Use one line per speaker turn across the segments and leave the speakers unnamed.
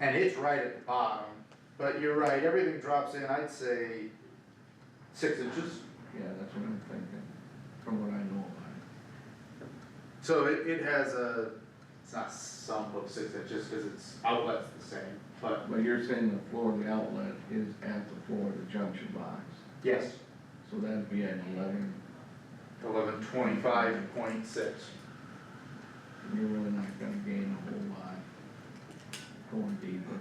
and it's right at the bottom, but you're right, everything drops in, I'd say six inches.
Yeah, that's what I'm thinking, from what I know about
So it, it has a, it's not sump of six inches, cause it's outlet's the same, but
it. But you're saying the floor of the outlet is at the floor of the junction box,
yes,
so that'd be at eleven,
eleven twenty-five point six.
and you're really not gonna gain a whole lot going deeper.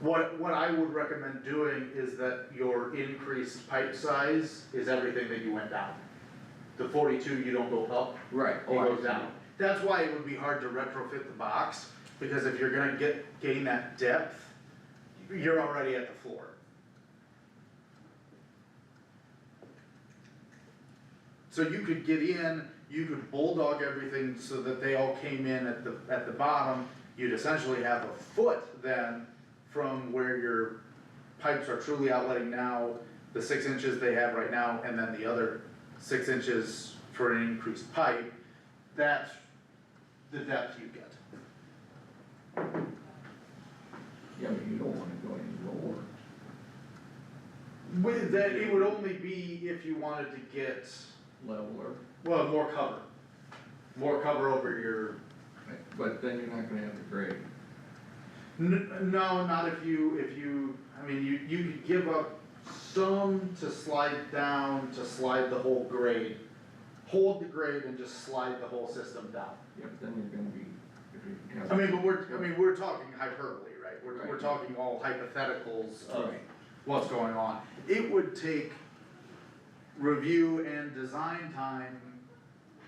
What, what I would recommend doing is that your increased pipe size is everything that you went down. The forty-two, you don't go up,
Right. oh,
it goes down. That's why it would be hard to retrofit the box, because if you're gonna get, gain that depth, you're already at the floor. So you could get in, you could bulldog everything so that they all came in at the, at the bottom. You'd essentially have a foot then from where your pipes are truly outletting now, the six inches they have right now, and then the other six inches for an increased pipe. That's the depth you get.
Yeah, but you don't wanna go any lower.
With that, it would only be if you wanted to get,
leveler,
well, more cover. More cover over your,
but then you're not gonna have the grade.
N- no, not if you, if you, I mean, you, you could give up some to slide down, to slide the whole grade. Hold the grade and just slide the whole system down.
Yep, then you're gonna be, if you have.
I mean, but we're, I mean, we're talking hyperbole, right? We're, we're
Right.
talking all hypotheticals of
Right.
what's going on. It would take review and design time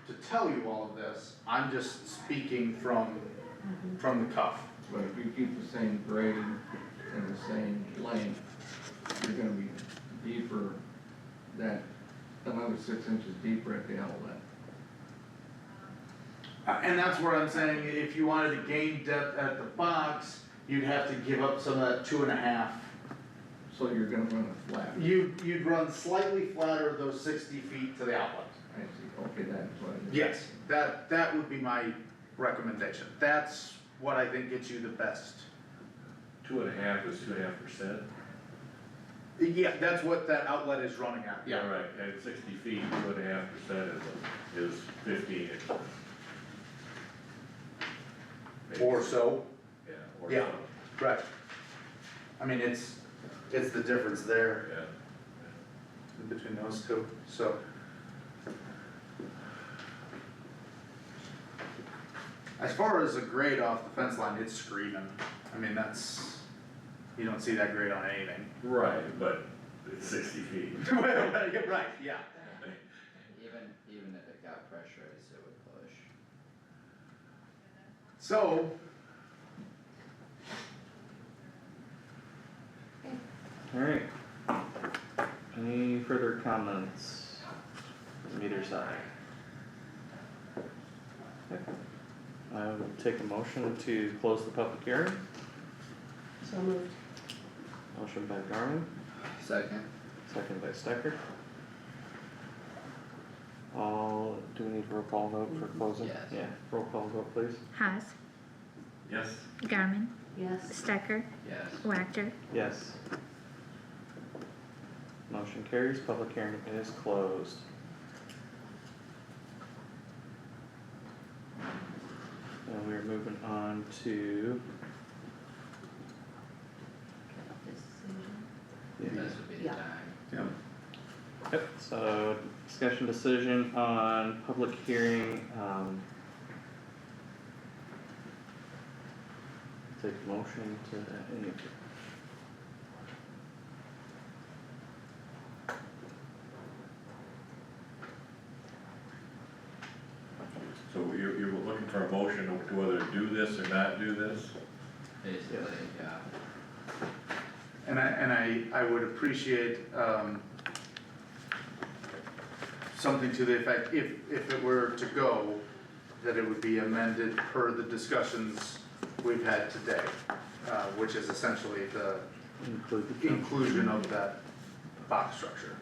to tell you all of this. I'm just speaking from, from the cuff.
But if you keep the same grade and the same length, you're gonna be deeper, that, another six inches deeper at the outlet.
Uh, And that's where I'm saying, if you wanted to gain depth at the box, you'd have to give up some of that two and a half.
So you're gonna run a flat,
You, you'd run slightly flatter those sixty feet to the outlet.
I see, okay, that's what it is.
Yes, that, that would be my recommendation. That's what I think gets you the best.
Two and a half is two and a half percent?
Yeah, that's what that outlet is running at, yeah.
Right, at sixty feet, two and a half percent is, a- is fifteen inches. Maybe.
Or so,
Yeah, or
Yeah.
something,
right. I mean, it's, it's the difference there
yeah.
between those two, so. As far as a grade off the fence line, it's screaming. I mean, that's, you don't see that grade on anything.
Right, but it's sixty feet.
Right, yeah.
Even, even if it got pressurized, it would push.
So,
Alright. Any further comments from either side? Okay. I would take a motion to close the public hearing.
So moved.
Motion by Garmin,
Second?
second by Stecker. All, do we need a roll call vote for closing?
Yes.
Yeah, roll call vote please.
Haas,
Yes,
Garmin,
Yes.
Stecker,
Yes.
Wactor.
Yes. Motion carries, public hearing is closed. And we're moving on to
Decision.
Mm-hmm.
This would be the
Yeah.
time.
Yep, so discussion decision on public hearing, um. Take motion to any.
so you're, you're looking for a motion of whether to do this or not do this?
Basically, yeah.
And I, and I, I would appreciate, um, something to the effect, if, if it were to go, that it would be amended per the discussions we've had today, uh, which is essentially the
Include the.
inclusion of that box structure.